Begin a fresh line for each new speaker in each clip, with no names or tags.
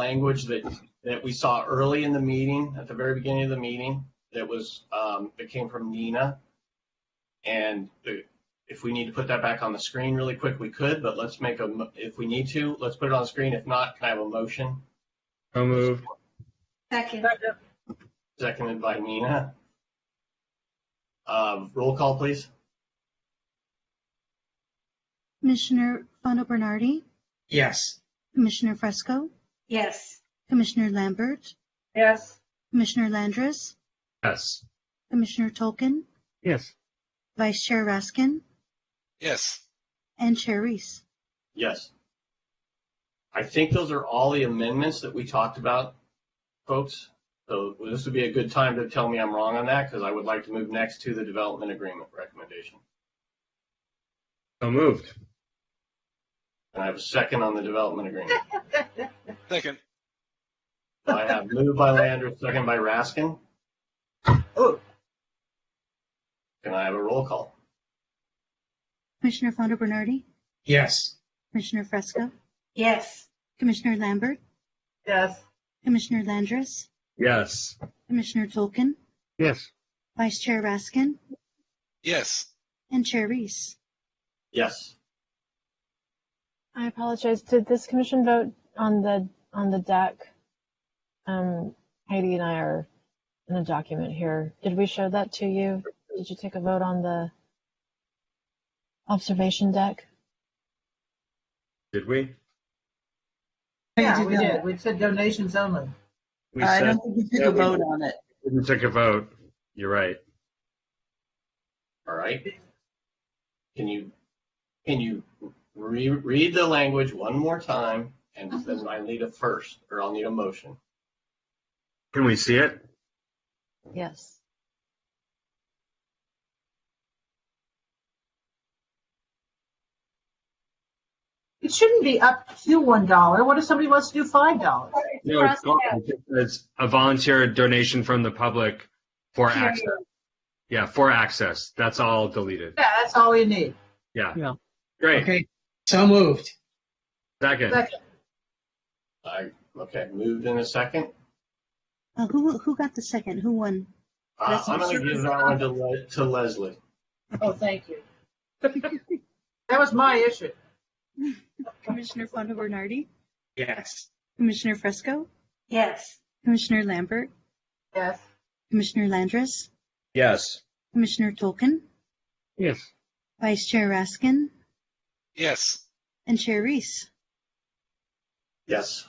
language that, that we saw early in the meeting, at the very beginning of the meeting, that was, um, that came from Nina. And the- if we need to put that back on the screen really quick, we could, but let's make a, mo- if we need to, let's put it on the screen. If not, can I have a motion?
So moved.
Second,
Second,
Seconded by Nina. Uh, roll call, please.
Commissioner Fondo Bernardi,
Yes.
Commissioner Fresco,
yes.
Commissioner Lambert,
yes.
Commissioner Landris,
Yes.
Commissioner Tolkien,
Yes.
Vice Chair Raskin,
Yes.
and Chair Reese.
Yes. I think those are all the amendments that we talked about, folks. So this would be a good time to tell me I'm wrong on that because I would like to move next to the development agreement recommendation.
So moved.
And I have a second on the development agreement.
Second.
I have moved by Landry, second by Raskin. Oh. Can I have a roll call?
Commissioner Fondo Bernardi,
Yes.
Commissioner Fresco,
Yes.
Commissioner Lambert,
Yes.
Commissioner Landris,
Yes.
Commissioner Tolkien,
Yes.
Vice Chair Raskin,
Yes.
and Chair Reese.
Yes.
I apologize. Did this commission vote on the, on the deck? Um, Heidi and I are in a document here. Did we show that to you? Did you take a vote on the observation deck?
Did we?
Yeah, we did. We said donations only. Uh,
We
I
said
don't think we
Yeah,
took a
we-
vote on it.
didn't take a vote. You're right.
All right. Can you, can you re- read the language one more time? And then I need a first, or I'll need a motion.
Can we see it?
Yes.
It shouldn't be up to one dollar. What if somebody wants to do five
Oh,
dollars?
No, it's gone. It's a volunteer donation from the public for access. Yeah, for access. That's all deleted.
Yeah, that's all you need.
Yeah.
Yeah.
Great.
Okay, so moved.
Second.
Second.
I, okay, moved in a second.
Uh, who, who got the second? Who won?
Uh,
That's
I'm
not
gonna give that one to Le- to Leslie.
Oh, thank you. That was my issue.
Commissioner Fondo Bernardi,
Yes.
Commissioner Fresco,
Yes.
Commissioner Lambert,
Yes.
Commissioner Landris,
Yes.
Commissioner Tolkien,
Yes.
Vice Chair Raskin,
Yes.
and Chair Reese.
Yes.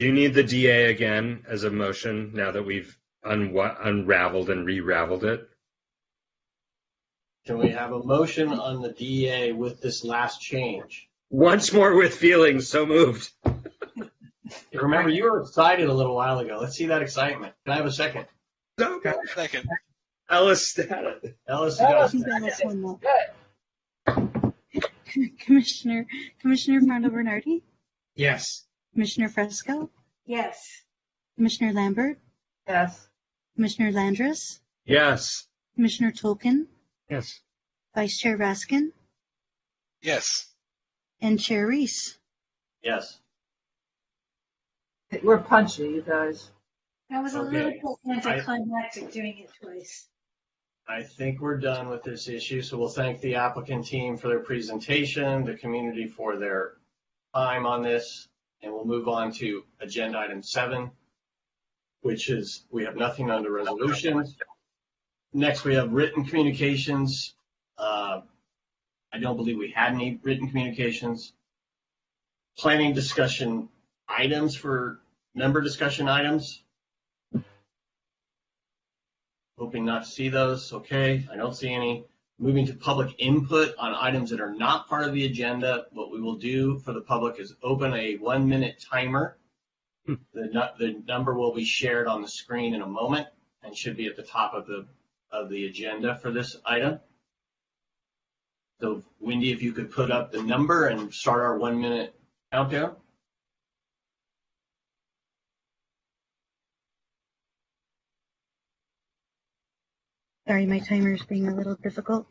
Do you need the DA again as a motion now that we've unwa- unraveled and re-raveled it?
Can we have a motion on the DEA with this last change?
Once more with feelings. So moved.
Remember, you were excited a little while ago. Let's see that excitement. Can I have a second?
So
Second.
Ellis got it.
Ellis, you got a
She's
second.
got us one more. Commissioner, Commissioner Fondo Bernardi,
Yes.
Commissioner Fresco,
Yes.
Commissioner Lambert,
Yes.
Commissioner Landris,
Yes.
Commissioner Tolkien,
Yes.
Vice Chair Raskin,
Yes.
and Chair Reese.
Yes.
We're punchy, you guys.
That was a
Okay.
little bit anticlimactic doing it twice.
I think we're done with this issue, so we'll thank the applicant team for their presentation, the community for their time on this, and we'll move on to agenda item seven, which is, we have nothing under resolutions. Next, we have written communications. Uh, I don't believe we had any written communications. Planning discussion items for member discussion items. Hoping not to see those. Okay, I don't see any. Moving to public input on items that are not part of the agenda. What we will do for the public is open a one-minute timer. The, nu- the number will be shared on the screen in a moment and should be at the top of the, of the agenda for this item. So Wendy, if you could put up the number and start our one-minute countdown.
Sorry, my timer's being a little difficult.